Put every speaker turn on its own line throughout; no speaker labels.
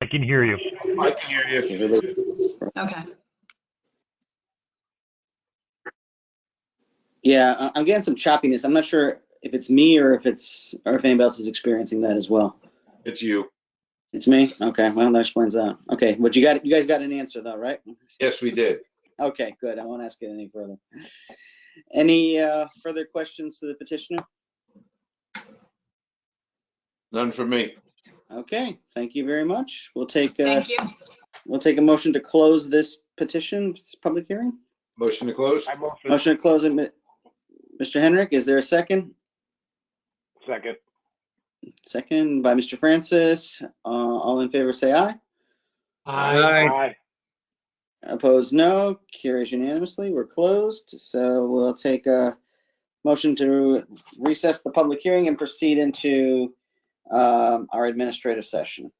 I can hear you.
I can hear you.
Okay,
Yeah, I- I'm getting some choppiness. I'm not sure if it's me or if it's or if anybody else is experiencing that as well.
It's you.
It's me. Okay, well that explains that. Okay, but you got you guys got an answer though, right?
Yes, we did.
Okay, good. I won't ask it any further. Any uh, further questions to the petitioner?
None from me.
Okay, thank you very much. We'll take uh,
thank you.
we'll take a motion to close this petition this public hearing.
Motion to close?
I motion
Motion to close it. Mi- Mr. Henrik, is there a second?
second.
Second by Mr. Francis. Uh, all in favor, say aye.
Aye.
Opposed, no. Carries unanimously. We're closed. So we'll take a motion to recess the public hearing and proceed into um, our administrative session.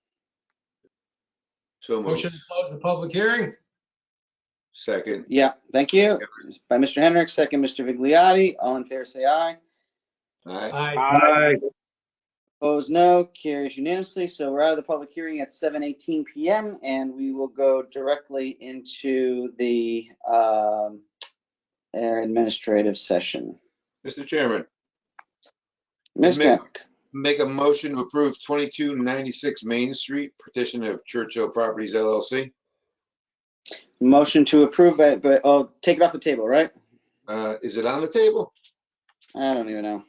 So
Motion
moved.
to close the public hearing?
Second.
Yeah, thank you. By Mr. Henrik, second Mr. Vigliotti. All in favor, say aye.
Aye.
Aye.
Aye.
Opposed, no. Carries unanimously. So we're out of the public hearing at 7:18 PM and we will go directly into the um, our administrative session.
Mr. Chairman,
Ms.
Ma'am.
Cook?
make a motion to approve 2296 Main Street petition of Churchill Properties LLC.
Motion to approve, but, but, oh, take it off the table, right?
Uh, Is it on the table?
I don't even know.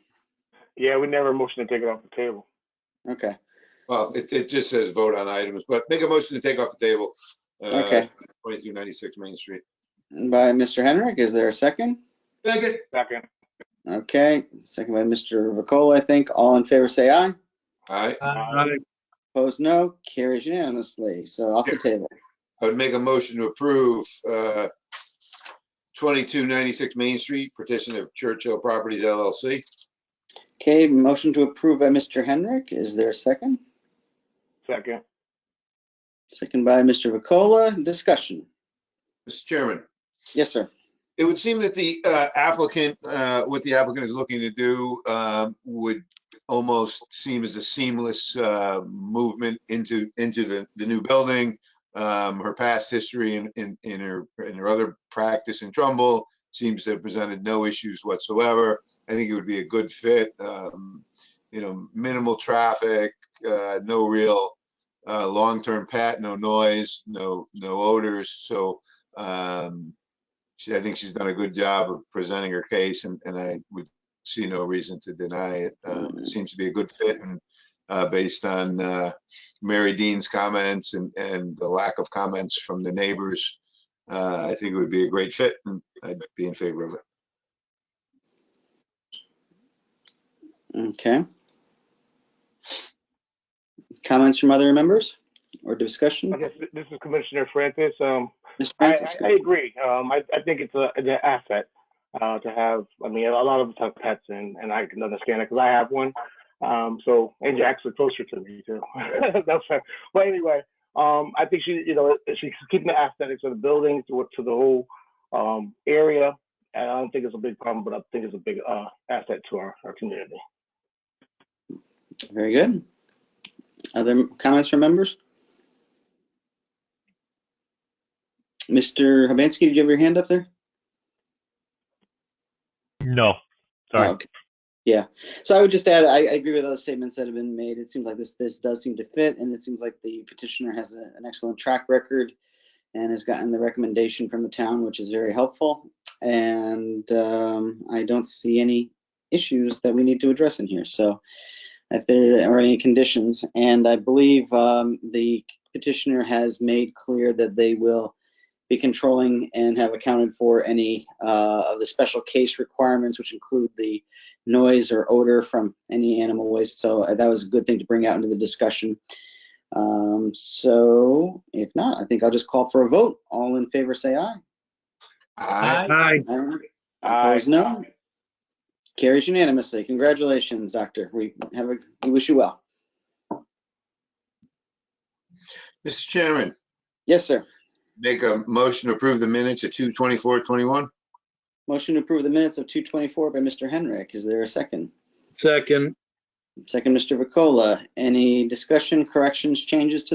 Yeah, we never motion to take it off the table.
Okay,
Well, it, it just says vote on items, but make a motion to take off the table. uh,
Okay.
2296 Main Street.
by Mr. Henrik, is there a second?
Second.
Second.
Okay, second by Mr. Vakola, I think. All in favor, say aye.
Aye.
Aye.
Opposed, no. Carries unanimously, so off the table.
I would make a motion to approve uh, 2296 Main Street petition of Churchill Properties LLC.
Okay, motion to approve by Mr. Henrik, is there a second?
Second.
Second by Mr. Vakola, discussion.
Mr. Chairman.
Yes, sir.
It would seem that the uh, applicant, uh, what the applicant is looking to do um, would almost seem as a seamless uh, movement into, into the, the new building. Um, Her past history in, in, in her, in her other practice in Trumbull seems to have presented no issues whatsoever. I think it would be a good fit, um, you know, minimal traffic, uh, no real uh, long-term pat, no noise, no, no odors. So um, she, I think she's done a good job of presenting her case and, and I would see no reason to deny it. Um, it seems to be a good fit and, uh, based on, uh, Mary Dean's comments and, and the lack of comments from the neighbors, uh, I think it would be a great fit and I'd be in favor of it.
Okay. Comments from other members or discussion?
I guess th- this is Commissioner Francis. Um,
Mr.
I,
Francis,
I I agree. Um, I, I think it's a, it's an asset, uh, to have, I mean, a lot of us have pets and, and I can understand it because I have one. Um, so, and Jack's are closer to me too. That's fair. But anyway, um, I think she, you know, she's keeping the aesthetics of the building to, to the whole, um, area. And I don't think it's a big problem, but I think it's a big, uh, asset to our, our community.
very good. Other comments from members? Mr. Habansky, did you have your hand up there?
No, sorry.
Oh, Okay. Yeah, so I would just add, I, I agree with other statements that have been made. It seems like this, this does seem to fit, and it seems like the petitioner has a- an excellent track record and has gotten the recommendation from the town, which is very helpful. And um, I don't see any issues that we need to address in here, so if there are any conditions. And I believe um, the petitioner has made clear that they will be controlling and have accounted for any uh, of the special case requirements, which include the noise or odor from any animal waste. So uh, that was a good thing to bring out into the discussion. Um, So if not, I think I'll just call for a vote. All in favor, say aye.
Aye.
Aye. Opposed, no. Carries unanimously. Congratulations, Doctor. We have, a we wish you well.
Mr. Chairman,
Yes, sir.
make a motion to approve the minutes at 2:24:21.
Motion to approve the minutes of 224 by Mr. Henrik. Is there a second?
Second.
Second, Mr. Vakola. Any discussion, corrections, changes to